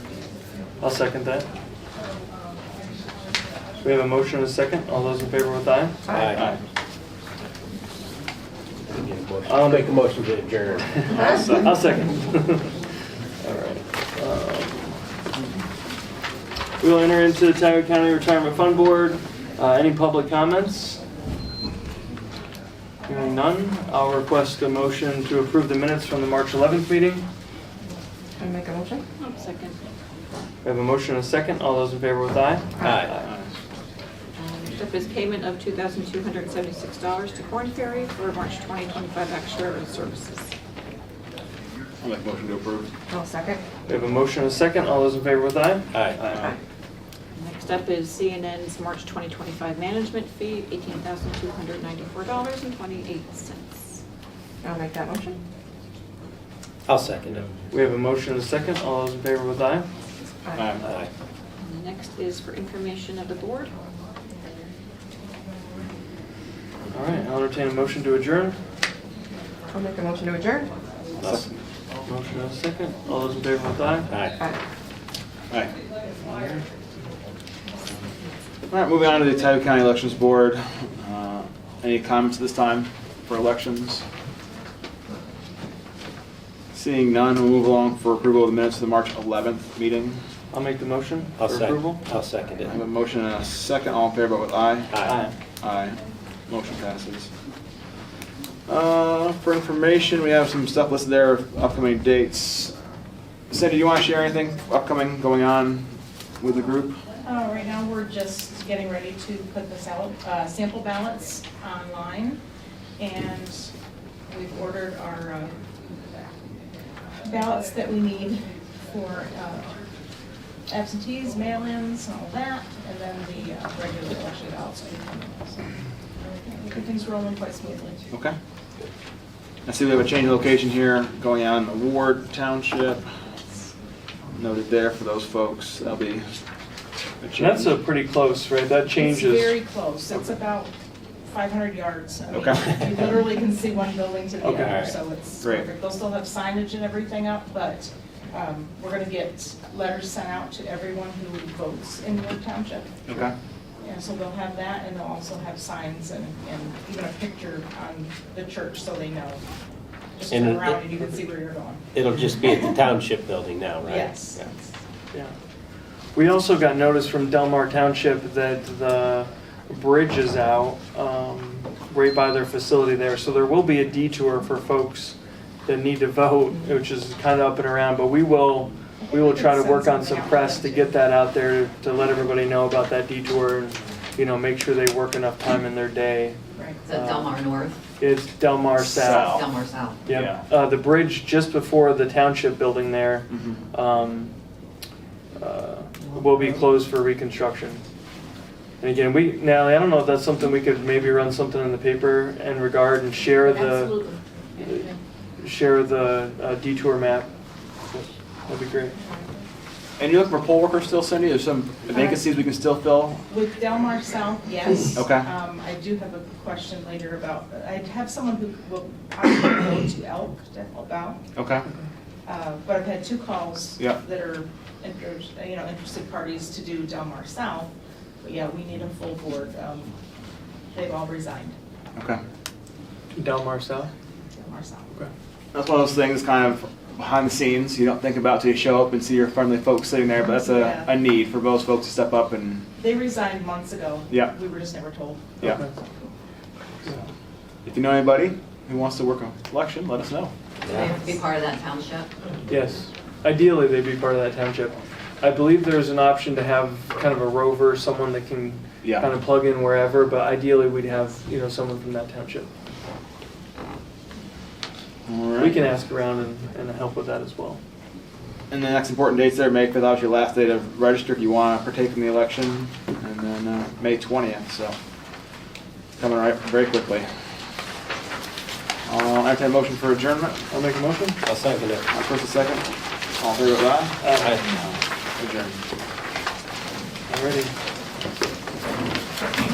I'll second that. We have a motion and a second. All those in favor with aye? Aye. I'll I'll make make a a motion to adjourn. I'll se- I'll second. All right. Um, We'll enter into the Tioga County Retirement Fund Board. Uh, Any public comments? Hearing none, I'll request a motion to approve the minutes from the March 11th meeting. Can I make a motion? I'll second. We have a motion and a second. All those in favor with aye? Aye. Next up Um, is payment of $2,276 to Corn Ferry for March 2025 actuarial services. I'll make a motion to approve. I'll second. We have a motion and a second. All those in favor with aye? Aye. Next up is CNN's March 2025 management fee, $18,294.28. I'll make that motion. I'll second it. We have a motion and a second. All those in favor with aye? Aye. Aye. And the next is for information of the board. All right, I'll entertain a motion to adjourn. I'll make a motion to adjourn. Motion and a second. All those in favor with aye? Aye. Aye. Aye. All right, moving on to the Tioga County Elections Board. Uh, Any comments this time for elections? Seeing none, we'll move along for approval of the minutes of the March 11th meeting. I'll make the motion for I'll second, approval. I'll second I it. have a motion and a second, all in favor, vote with aye. Aye. Aye. Motion passes. Uh, For information, we have some stuff listed there, of upcoming dates. Cindy, do you want to share anything upcoming going on with the group? Uh, Right now, we're just getting ready to put the sal- uh, sample ballots online, and we've ordered our uh, ballots that we need for uh, absentees, mail-ins, and all that, and then the uh, regular election ballots. will be coming. So, Everything's rolling quite smoothly. Okay. I see we have a change of location here going on in the Ward Township. Noted there for those folks. That'll be a change. That's a pretty close, right? That It's very changes. close, it's about 500 yards. I mean, Okay. You literally can see one building to the Okay. other, so it's Great. perfect. They'll still have signage and everything up, but um, we're going to get letters sent out to everyone who votes in Ward Township. Okay. And so they'll have that, and they'll also have signs and and even a picture on the church, so they know. Just turn And- around and you can see where you're going. It'll just be at the township building now, right? Yes. Yeah. We also got notice from Delmar Township that the bridge is out, um, right by their facility there. So there will be a detour for folks that need to vote, which is kind of up and around, but we will, we will try to work on some press to get that out there to let everybody know about that detour and, you know, make sure they work enough time in their day. Right. Is that Delmar North? It's Delmar South. Delmar South. Yeah, uh, the bridge just before the township building there, Mhm. um, uh, will be closed for reconstruction. And again, we, Natalie, I don't know if that's something we could maybe run something in the paper in regard and share the, Absolutely. share the uh, detour map. That'd be great. And you're looking for poll workers still, Cindy? There's some vacancies we can still fill? With Delmar South, yes. Okay. Um, I do have a question later about, I have someone who will possibly go to Elk, to help out, Okay. uh, but I've had two calls Yeah. that are, inter- you know, interested parties to do Delmar South, but yeah, we need a full board. Um, They've all resigned, Okay. Delmar South? Delmar South. That's one of those things kind of behind the scenes you don't think about till you show up and see your friendly folks sitting there, but that's a, Yeah. a need for those folks to step up and, They resigned months ago. Yeah. We were just never told. yeah. Okay. If you know anybody who wants to work on election, let us know. Do they have to be part of that township? Yes, ideally they'd be part of that township. I believe there's an option to have kind of a rover, someone that can Yeah. kind of plug in wherever, but ideally we'd have, you know, someone from that township. We can ask around and, and help with that as well. And the next important dates there, May 5th, obviously your last day to register if you want to partake in the election, and then uh, May 20th, so coming right very quickly. I'll entertain a motion for adjournment. I'll make a motion. I'll second it. Uh, First and second, all in favor, aye? Uh, Aye. Adjourned. Alrighty.